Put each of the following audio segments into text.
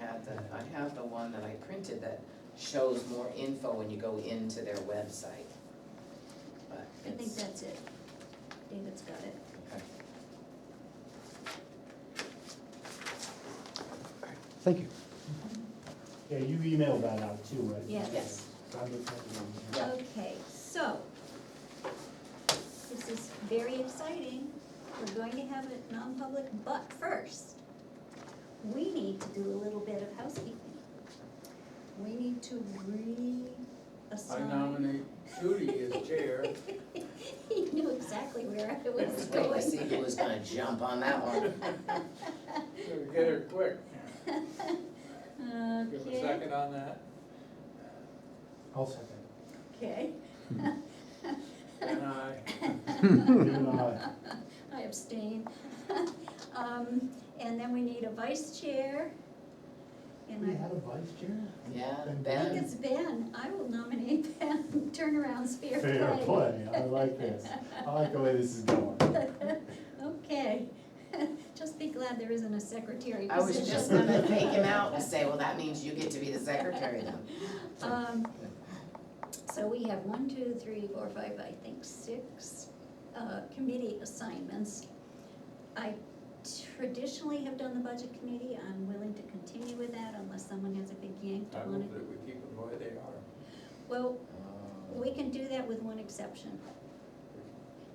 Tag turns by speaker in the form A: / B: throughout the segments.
A: have the, I have the one that I printed that shows more info when you go into their website. But
B: I think
A: it's,
B: that's it. David's got it.
C: Thank you.
D: Yeah, you emailed that out too, right?
B: Yes.
A: Yes.
D: I looked at it on here.
A: Yeah.
B: Okay, so, this is very exciting. We're going to have it non-public, but first, we need to do a little bit of housekeeping. We need to
E: I
B: reassign.
E: nominate Judy as chair.
B: He knew exactly where I was
A: Let's wait to see
B: going.
A: who was gonna jump on that one.
E: So Get her quick. Give a
B: Okay,
E: second on that.
D: I'll second.
B: okay.
E: And I,
D: Give it a aye.
B: I abstain. Um, and then we need a vice chair. And
D: We
B: I-
D: had a vice chair?
A: Yeah,
D: And
B: I think
A: Ben.
B: it's Ben, I will nominate Ben, turnaround's fair play.
D: Fair play, I like this. I like the way this is going.
B: Okay, just be glad there isn't a secretary
A: I was just
B: position.
A: gonna take him out and say, well, that means you get to be the secretary then.
B: Um, so we have one, two, three, four, five, I think six, uh, committee assignments. I traditionally have done the budget committee, I'm willing to continue with that unless someone has a big yank to
E: I
B: want
E: move
B: it.
E: that we keep them where they are.
B: Well, We can do that with one exception.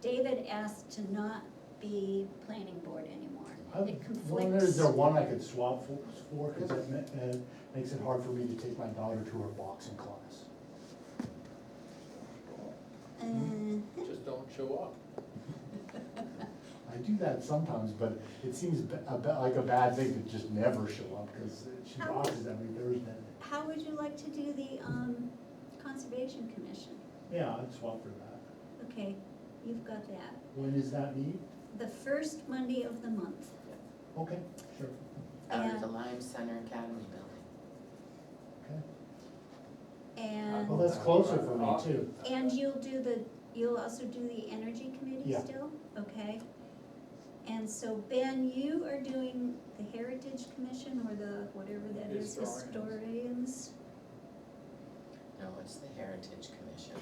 B: David asked to not be planning board
D: I
B: anymore. It
D: wonder,
B: conflicts.
D: is there one I could swap for, for, cause that ma- uh, makes it hard for me to take my daughter to her boxing class.
B: Uh,
E: Just don't show up.
D: I do that sometimes, but it seems ba- a ba- like a bad thing to just never show up, cause she
B: How-
D: boxes every Thursday.
B: How would you like to do the um, Conservation Commission?
D: Yeah, I'd swap for that.
B: Okay, you've got that.
D: When is that need?
B: The first Monday of the month.
D: Okay, sure,
A: Out of
B: Yeah.
A: the Lime Center Academy building.
D: okay. Well,
B: And,
D: that's closer for me, too.
B: and you'll do the, you'll also do the Energy Committee
D: Yeah.
B: still? Okay. And so Ben, you are doing the Heritage Commission or the, whatever that is,
E: Historians.
B: historians?
A: No, it's the Heritage Commission.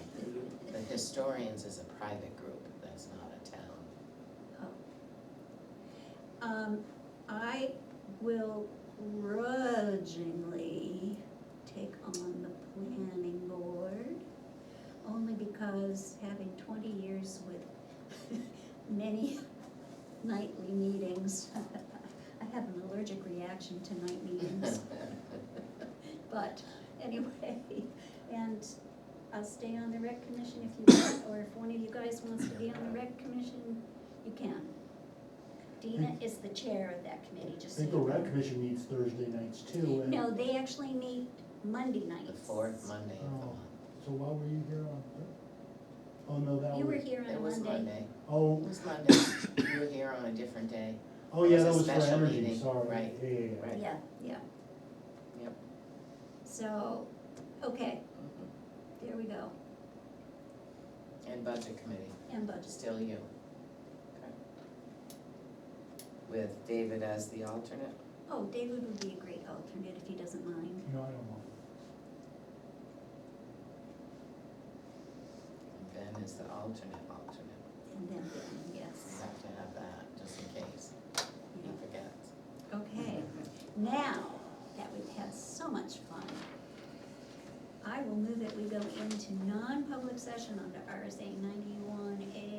A: The Historians is a private group, that's not a town.
B: Um, I will grudgingly take on the planning board, only because having twenty years with many nightly meetings, I have an allergic reaction to night meetings. But anyway, and I'll stay on the rec commission if you want, or if one of you guys wants to be on the rec commission, you can. Dina is the chair of that committee,
D: I
B: just so you
D: think the
B: know.
D: rec commission meets Thursday nights too, and,
B: No, they actually meet Monday nights.
A: The fourth Monday of the
D: Oh.
A: month.
D: so why were you here on Thursday? Oh, no, that
B: You were
D: was,
B: here
A: It
B: on
A: was
B: Monday.
A: Monday, it
D: oh,
A: was Monday, you were here on a different day.
D: oh
A: It
D: yeah,
A: was a
D: that was for
A: special
D: energy,
A: meeting,
D: sorry,
A: right,
D: yeah, yeah, yeah.
A: right.
B: Yeah, yeah.
A: Yep.
B: So, okay,
A: Mm-hmm.
B: there we go,
A: And Budget Committee,
B: and budget.
A: still you. With David as the alternate.
B: Oh, David would be a great alternate if he doesn't mind.
D: No, I don't know.
A: And Ben is the alternate, alternate.
B: And then, Ben,
A: You
B: yes,
A: have to have that, just in case he
B: yeah.
A: forgets.
B: Okay, now that we've had so much fun, I will move that we go into non-public session under RSA ninety-one A